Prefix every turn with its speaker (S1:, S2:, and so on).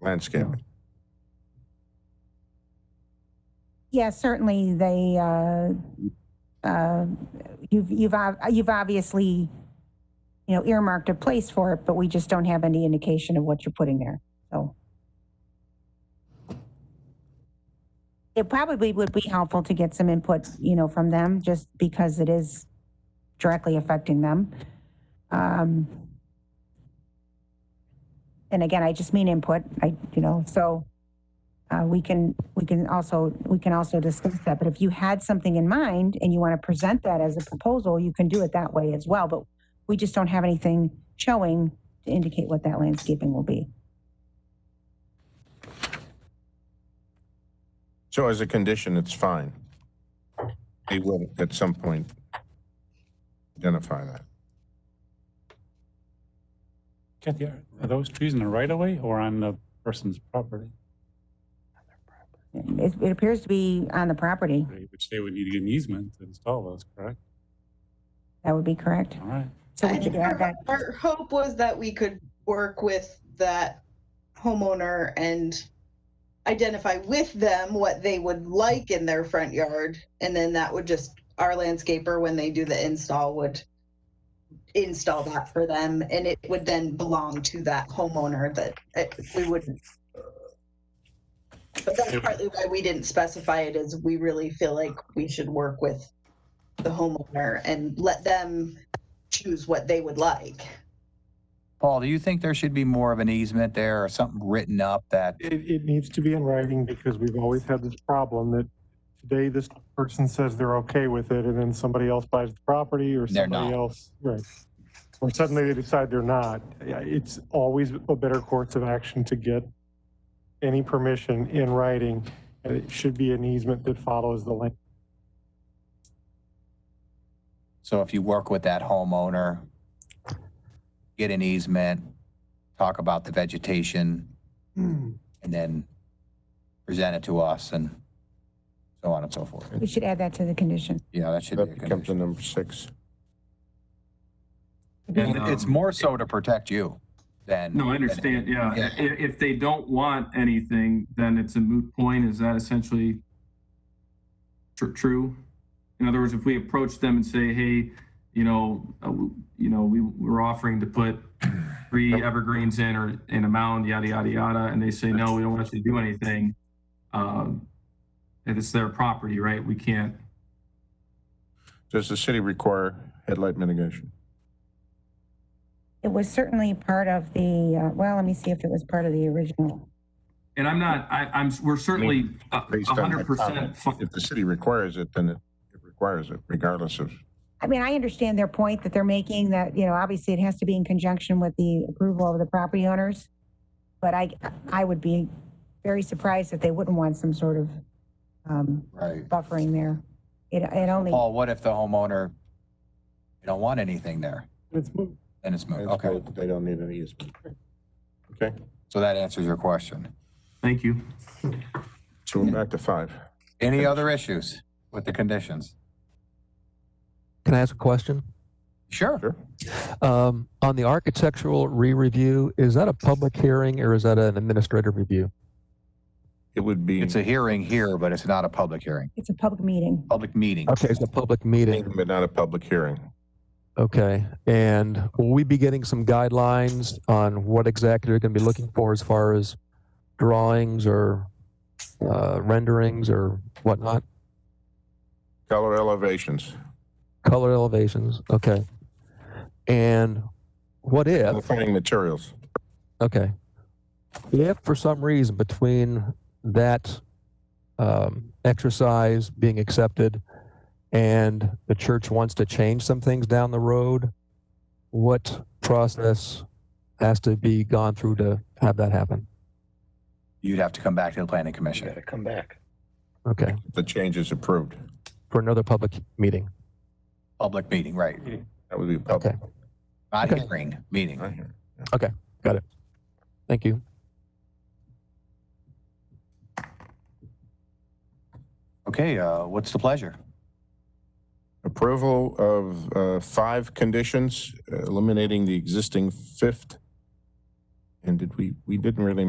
S1: landscaping.
S2: Yes, certainly, they, uh, uh, you've, you've, ob- you've obviously, you know, earmarked a place for it, but we just don't have any indication of what you're putting there, so. It probably would be helpful to get some input, you know, from them, just because it is directly affecting them. Um, And again, I just mean input, I, you know, so. Uh, we can, we can also, we can also discuss that, but if you had something in mind and you want to present that as a proposal, you can do it that way as well, but we just don't have anything showing to indicate what that landscaping will be.
S1: So as a condition, it's fine. They will at some point identify that.
S3: Kathy, are are those trees in the right of way or on the person's property?
S2: It, it appears to be on the property,
S3: Right, Which they would need to get an easement to install those, correct?
S2: that would be correct.
S3: All right.
S2: So
S4: I
S2: we could
S4: think
S2: add
S4: our,
S2: that,
S4: our hope was that we could work with that homeowner and identify with them what they would like in their front yard. And then that would just, our landscaper, when they do the install, would install that for them and it would then belong to that homeowner that it, we wouldn't. But that's partly why we didn't specify it is we really feel like we should work with the homeowner and let them choose what they would like.
S5: Paul, do you think there should be more of an easement there or something written up that,
S6: It, it needs to be in writing because we've always had this problem that today this person says they're okay with it and then somebody else buys the property or
S5: They're
S6: somebody
S5: not.
S6: else, right. Or suddenly they decide they're not. Yeah, It's always a better course of action to get any permission in writing. And it should be an easement that follows the land.
S5: so if you work with that homeowner, get an easement, talk about the vegetation,
S6: Hmm.
S5: and then present it to us and so on and so forth.
S2: we should add that to the condition.
S5: Yeah, that should be a
S1: That becomes a
S5: condition.
S1: number six.
S5: And It's more so to protect you than.
S7: No, I
S5: than-
S7: understand, yeah.
S5: Yeah.
S7: I- If, if they don't want anything, then it's a moot point. Is that essentially tr- true? In other words, if we approach them and say, hey, you know, uh, w- you know, we, we're offering to put three evergreens in or in a mound, yada, yada, yada, and they say, no, we don't want you to do anything. Um, and it's their property, right? We can't,
S1: Does the city require headlight mitigation?
S2: It was certainly part of the, uh, well, let me see if it was part of the original.
S7: and I'm not, I, I'm, we're certainly a
S1: Based on my
S7: hundred percent.
S1: comment, If the city requires it, then it it requires it regardless of,
S2: I mean, I understand their point that they're making that, you know, obviously it has to be in conjunction with the approval of the property owners. But I, I would be very surprised if they wouldn't want some sort of, um,
S5: Right.
S2: buffering there. It, it only,
S5: Paul, what if the homeowner, they don't want anything there?
S6: It's moved.
S5: Then it's moot. Okay,
S1: they don't need an easement. Okay,
S5: so that answers your question.
S7: Thank you.
S1: so we're back to five.
S5: Any other issues with the conditions?
S8: Can I ask a question?
S5: Sure.
S8: Um, on the architectural re-review, is that a public hearing or is that an administrative review?
S1: It would be
S5: It's a hearing here, but it's not a public hearing,
S2: it's a public meeting.
S5: public meeting.
S8: Okay, it's a public meeting.
S1: but not a public hearing.
S8: Okay, and will we be getting some guidelines on what exactly you're going to be looking for as far as drawings or uh, renderings or whatnot?
S1: Color elevations.
S8: Color elevations. Okay, and what if?
S1: Defining materials.
S8: Okay. If for some reason between that um, exercise being accepted and the church wants to change some things down the road, what process has to be gone through to have that happen?
S5: You'd have to come back to the planning commission.
S8: Okay.
S1: The change is approved.
S8: For another public meeting.
S5: Public meeting, right.
S1: That would be public.
S5: Not
S8: Okay.
S5: hearing, meeting.
S1: I hear.
S8: Thank you.
S5: Okay, uh, what's the pleasure?
S1: Approval of uh, five conditions, eliminating the existing fifth. And did we, we didn't really